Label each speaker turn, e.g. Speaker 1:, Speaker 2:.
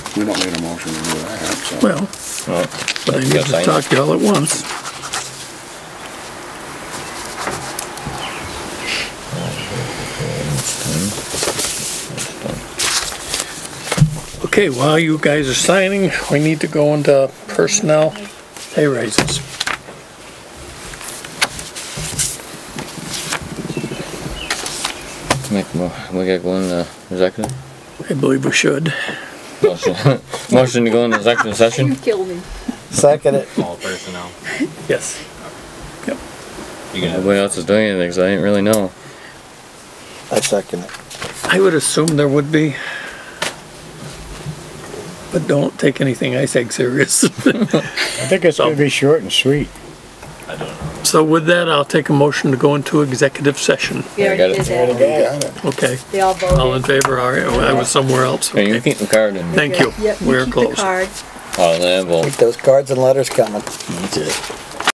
Speaker 1: We don't need a motion to do that, so.
Speaker 2: Well,
Speaker 3: Well,
Speaker 2: but I
Speaker 3: you
Speaker 2: need
Speaker 3: gotta
Speaker 2: to
Speaker 3: sign
Speaker 2: talk to y'all at once. Okay, while you guys are signing, we need to go into personnel pay raises.
Speaker 3: Make, mo- we gotta go in the executive.
Speaker 2: I believe we should.
Speaker 3: Motion- Motion to go in the executive
Speaker 4: You
Speaker 3: session.
Speaker 4: kill me.
Speaker 5: Second it.
Speaker 6: all personnel.
Speaker 2: Yes. Yep.
Speaker 6: You gonna
Speaker 3: Nobody else is doing anything, 'cause I didn't really know.
Speaker 5: I second it.
Speaker 2: I would assume there would be. But don't take anything I say serious.
Speaker 7: I think it's gonna be short and sweet.
Speaker 6: I don't know.
Speaker 2: So with that, I'll take a motion to go into executive session.
Speaker 4: We
Speaker 3: I got
Speaker 4: already
Speaker 3: it.
Speaker 4: did that.
Speaker 1: Got it.
Speaker 2: Okay,
Speaker 4: They all
Speaker 2: all in
Speaker 4: voted.
Speaker 2: favor, all right, well, I was somewhere else.
Speaker 3: Hey, you
Speaker 2: Okay.
Speaker 3: keep the card and,
Speaker 2: Thank you.
Speaker 4: Yep, you
Speaker 2: We're
Speaker 4: keep the
Speaker 2: closed.
Speaker 4: card.
Speaker 3: oh, the envelope.
Speaker 5: Keep those cards and letters coming.